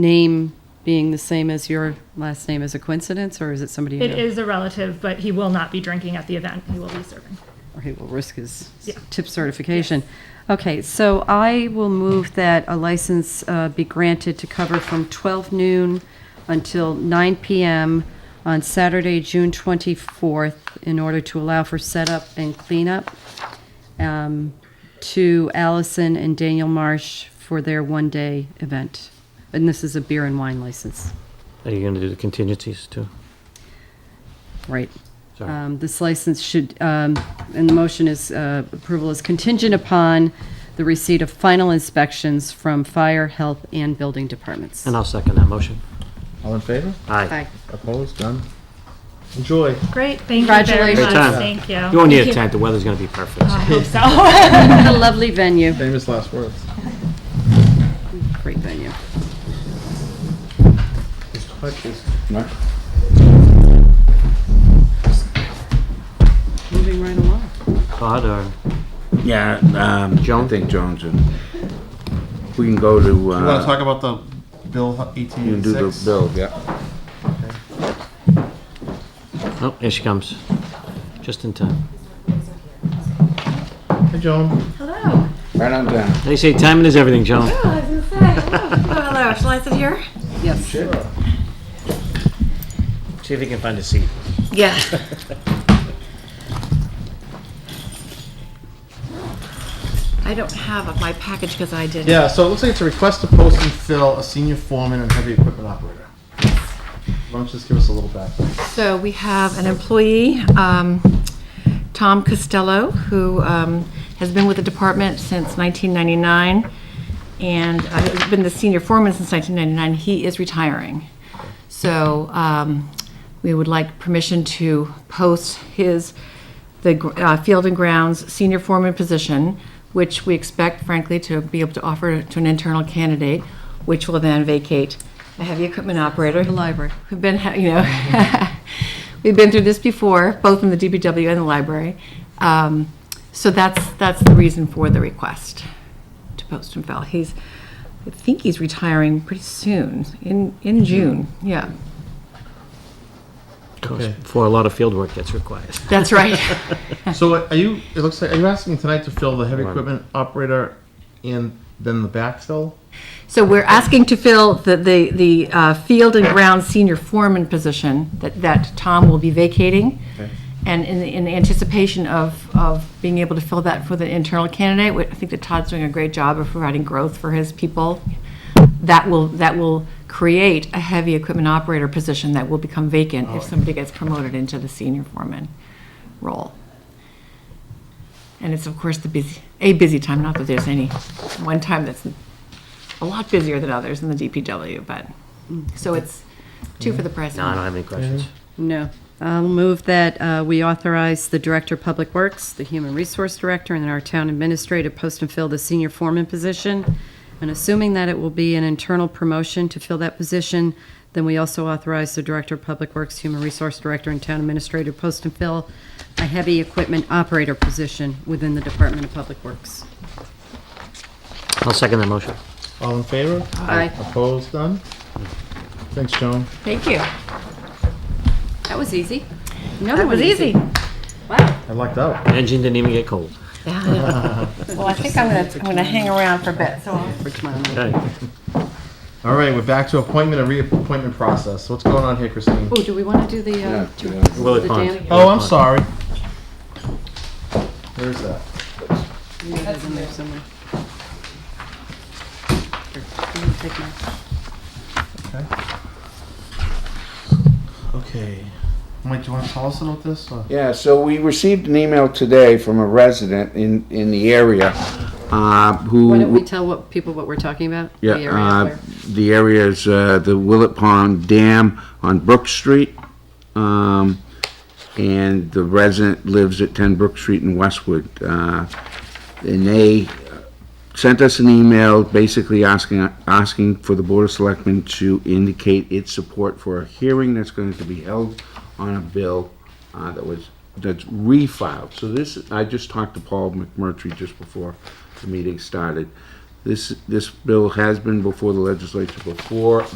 name being the same as your last name is a coincidence, or is it somebody you It know? is a relative, but he will not be drinking at the event. He will be serving. Or he will risk his Yeah. tip certification. Okay, so I will move that a license uh, be granted to cover from 12 noon until 9 PM on Saturday, June 24th, in order to allow for setup and cleanup um, to Allison and Daniel Marsh for their one-day event. And this is a beer and wine license. Are you going to do the contingencies too? Right. Sorry. Um, This license should, um, and the motion is, uh, approval is contingent upon the receipt of final inspections from fire, health, and building departments. And I'll second that motion. All in favor? Aye. Aye. Opposed? Done. Enjoy. Great, thank you very Congratulations. much. Great time. Thank you. You won't need a Thank you. tent, the weather's going to be perfect. I hope so. What a lovely venue, Famous last words. great venue. Moving right along. Todd or Yeah, um, Joan? I think Jones. and- We can go to, You want to uh, talk about the bill E you eighteen can do the eighty-six? bill, yeah. Oh, here she comes. Just in time. Hey, Joan. Hello. Right on down. They say timing is everything, Joan. Oh, I was gonna say, hello. Oh, hello. Shall I sit here? Yes. See if you can find a seat. Yeah. I don't have my package because I didn't. Yeah, so it looks like it's a request to post and fill a senior foreman and heavy equipment operator. Why don't you just give us a little background? So we have an employee, um, Tom Costello, who um, has been with the department since 1999, and uh, has been the senior foreman since 1999. He is retiring. So um, we would like permission to post his, the gr- uh, Field and Grounds senior foreman position, which we expect frankly to be able to offer to an internal candidate, which will then vacate a heavy equipment operator. The library. We've been, ha- you know, we've been through this before, both in the DBW and the library. Um, So that's, that's the reason for the request to post and fill. He's, I think he's retiring pretty soon, in, in June, yeah. Before a lot of field work gets required. That's right. So are you, it looks like, are you asking tonight to fill the heavy equipment operator and then the backfill? So we're asking to fill the, the, the uh, field and ground senior foreman position that, that Tom will be vacating. And in, in anticipation of, of being able to fill that for the internal candidate, wh- I think that Todd's doing a great job of providing growth for his people. That will, that will create a heavy equipment operator position that will become vacant if somebody gets promoted into the senior foreman role. And it's, of course, the busy, a busy time, not that there's any one time that's a lot busier than others in the DPW, but, so it's two for the price. of No, I one. don't have any questions. No. I'll move that uh, we authorize the Director of Public Works, the Human Resource Director, and our Town Administrator post and fill the senior foreman position. And assuming that it will be an internal promotion to fill that position, then we also authorize the Director of Public Works, Human Resource Director, and Town Administrator post and fill a heavy equipment operator position within the Department of Public Works. I'll second that motion. All in favor? Aye. Opposed? Done. Thanks, Joan. Thank you. That was easy. That was easy. I lucked out. Engine didn't even get cold. Well, I think I'm gonna, I'm gonna hang around for a bit, so. I'll- For tomorrow night. Okay. All right, we're back to appointment and reappointment process. What's going on here, Christine? Oh, do we want to do the, uh, Yeah, do- yeah. Willie The Pond. dam- Oh, I'm sorry. Where's that? Maybe it was in there somewhere. Here, let me take mine. Okay. Mike, do you want to tell us about this? or- Yeah, so we received an email today from a resident in, in the area, uh, who. Why don't we tell what, people what we're talking about? The Yeah, area uh, where- the area is uh, the Willet Pond Dam on Brook Street. Um, And the resident lives at 10 Brook Street in Westwood. Uh, And they sent us an email basically asking, asking for the Board of Selectmen to indicate its support for a hearing that's going to be held on a bill uh, that was, that's refiled. So this, I just talked to Paul McMurtry just before the meeting started. This, this bill has been before the legislature before,